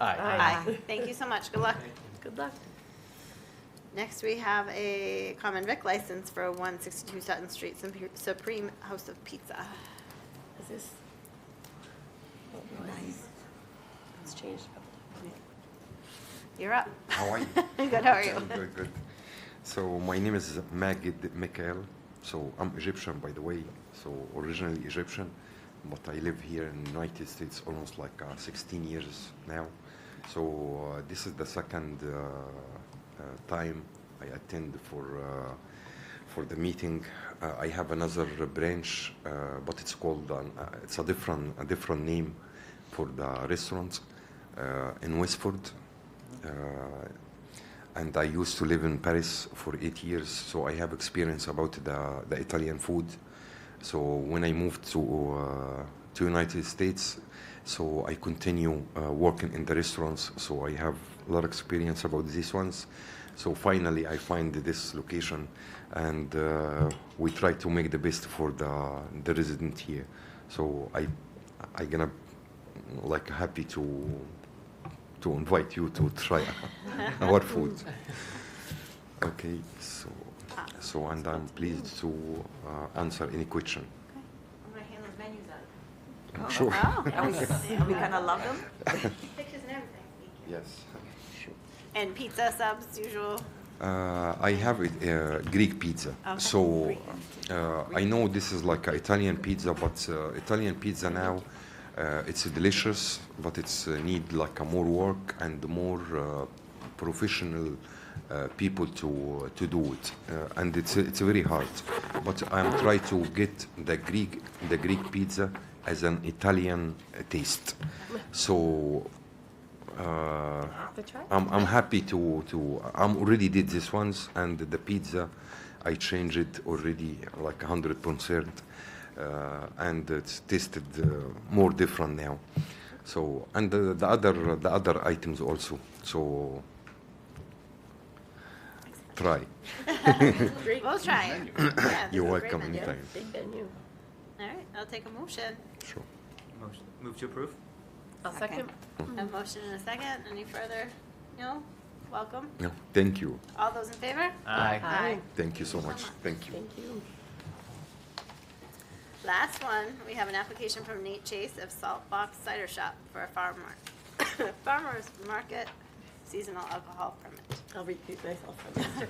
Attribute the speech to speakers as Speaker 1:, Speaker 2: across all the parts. Speaker 1: Aye.
Speaker 2: Aye.
Speaker 3: Thank you so much. Good luck.
Speaker 2: Good luck.
Speaker 3: Next, we have a common vic license for 162 Sutton Street, Sup- Supreme House of Pizza.
Speaker 2: Is this? oh, no, it's- It's changed. a couple
Speaker 3: You're up.
Speaker 4: How are you?
Speaker 3: Good, how are you?
Speaker 4: Good, good. So my name is Magid Mikhail. So I'm Egyptian, by the way. So originally Egyptian, but I live here in the United States almost like uh, 16 years now. So uh, this is the second uh, uh, time I attend for uh, for the meeting. Uh, I have another branch, uh, but it's called an, uh, it's a different a different name for the restaurant uh, in Westford. Uh, and I used to live in Paris for eight years, so I have experience about the, the Italian food. So when I moved to uh, to United States, so I continue uh, working in the restaurants. So I have a lot of experience about these ones. So finally, I find this location, and uh, we try to make the best for the the resident here. So I I gonna like happy to to invite you to try our food. Okay, so
Speaker 3: Ah.
Speaker 4: so and I'm pleased to uh, answer any question.
Speaker 3: I'm gonna hand those menus out. Oh,
Speaker 4: I'm sure.
Speaker 5: Are we, are we gonna love them?
Speaker 3: Pictures and everything. Thank you.
Speaker 4: Yes.
Speaker 3: And pizza subs, usual.
Speaker 4: Uh, I have it, uh, Greek pizza.
Speaker 3: Okay.
Speaker 4: So uh, I know this is like a Italian pizza, but uh, Italian pizza now uh, it's delicious, but it's uh, need like a more work and more uh, professional uh, people to to do it, uh, and it's it's very hard. But I'm trying to get the Greek the Greek pizza as an Italian uh, taste. So. Uh,
Speaker 2: of- The try?
Speaker 4: I'm, I'm happy to, to I'm already did this once and the pizza I changed it already like 100 percent uh, and it's tasted uh, more different now so and the, the other the other items also so try
Speaker 2: Great.
Speaker 3: We'll try it. Yeah, this is
Speaker 4: You're
Speaker 3: a great
Speaker 4: welcome
Speaker 3: menu.
Speaker 2: Yeah,
Speaker 4: anytime.
Speaker 2: big venue.
Speaker 3: All right, I'll take a motion.
Speaker 4: sure
Speaker 1: Motion- Move to approve?
Speaker 2: I'll second.
Speaker 3: A motion and a second. Any further? No? Welcome.
Speaker 4: no thank you
Speaker 3: All those in favor?
Speaker 1: Aye.
Speaker 2: Aye.
Speaker 4: thank you so much thank you
Speaker 2: Thank you.
Speaker 3: Last one, we have an application from Nate Chase of Salt Box Cider Shop for a farm mar- farmer's market seasonal alcohol permit.
Speaker 2: I'll repeat myself from that.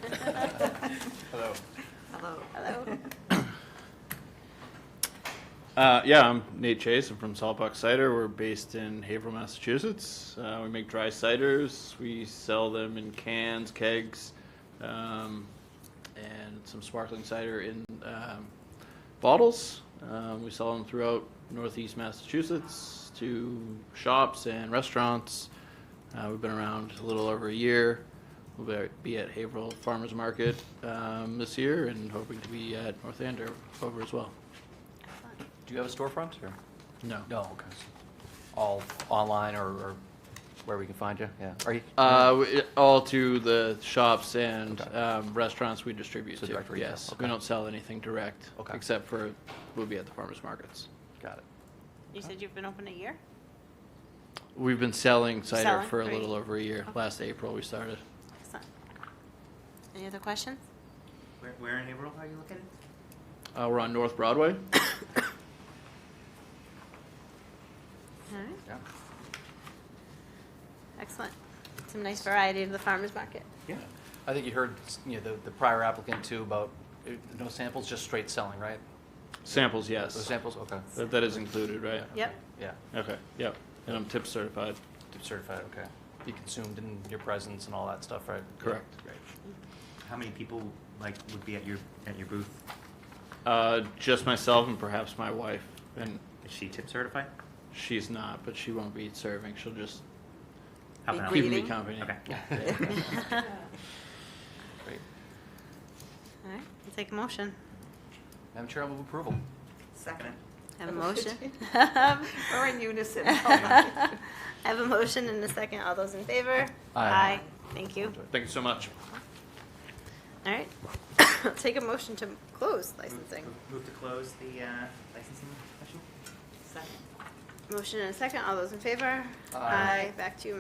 Speaker 6: Hello.
Speaker 5: Hello.
Speaker 3: Hello?
Speaker 6: Uh, yeah, I'm Nate Chase. I'm from Saltbox Cider. We're based in Haverhill, Massachusetts. Uh, we make dry ciders. We sell them in cans, kegs, um, and some sparkling cider in um, bottles. Um, we sell them throughout Northeast Massachusetts to shops and restaurants. Uh, we've been around a little over a year. We'll be- be at Haverhill Farmers Market um, this year and hoping to be at North Andover over as well.
Speaker 5: Do you have a storefront or?
Speaker 6: No.
Speaker 5: No, okay. All online or, or where we can find you, yeah. Are you?
Speaker 6: Uh, we- all to the shops and
Speaker 5: Okay.
Speaker 6: um, restaurants we distribute
Speaker 5: So
Speaker 6: to.
Speaker 5: direct retail,
Speaker 6: Yes, we
Speaker 5: okay.
Speaker 6: don't sell anything direct.
Speaker 5: Okay.
Speaker 6: Except for, we'll be at the farmers markets.
Speaker 5: Got it.
Speaker 3: You said you've been open a year?
Speaker 6: We've been selling cider
Speaker 3: Selling,
Speaker 6: for a
Speaker 3: right.
Speaker 6: little over a year.
Speaker 3: Okay.
Speaker 6: Last April, we started.
Speaker 3: Excellent. Any other questions?
Speaker 1: Where, where in Haverhill are you looking?
Speaker 6: Uh, We're on North Broadway.
Speaker 3: All right,
Speaker 5: Yeah.
Speaker 3: excellent. Some nice variety to the farmer's market.
Speaker 5: Yeah. I think you heard, you know, the, the prior applicant too about, uh, no samples, just straight selling, right?
Speaker 6: Samples,
Speaker 5: No
Speaker 6: yes.
Speaker 5: samples, okay.
Speaker 6: That that is included, right?
Speaker 3: Yep.
Speaker 5: Yeah,
Speaker 6: Okay, yep. And I'm tip certified.
Speaker 5: They're certified, okay. Be consumed in your presence and all that stuff, right?
Speaker 6: Correct.
Speaker 5: Great.
Speaker 1: How many people, like, would be at your, at your booth?
Speaker 6: Uh, Just myself and perhaps my wife. And
Speaker 1: Is she tip certified?
Speaker 6: she's not, but she won't be serving. She'll just
Speaker 1: Half
Speaker 3: Be
Speaker 1: an hour.
Speaker 6: keep me
Speaker 3: Greeting.
Speaker 6: company.
Speaker 1: Okay.
Speaker 5: Great.
Speaker 3: All right, I'll take a motion.
Speaker 5: Madam Chair, I'll move approval.
Speaker 1: Second.
Speaker 3: Have a motion.
Speaker 2: We're in unison.
Speaker 3: I have a motion and a second. All those in favor?
Speaker 5: Aye.
Speaker 3: Thank you.
Speaker 6: Thank you so much.
Speaker 3: All right. Take a motion to close licensing.
Speaker 1: Move- Move to close the uh, licensing session?
Speaker 3: Motion and a second. All those in favor?
Speaker 5: Aye.
Speaker 3: Back to you,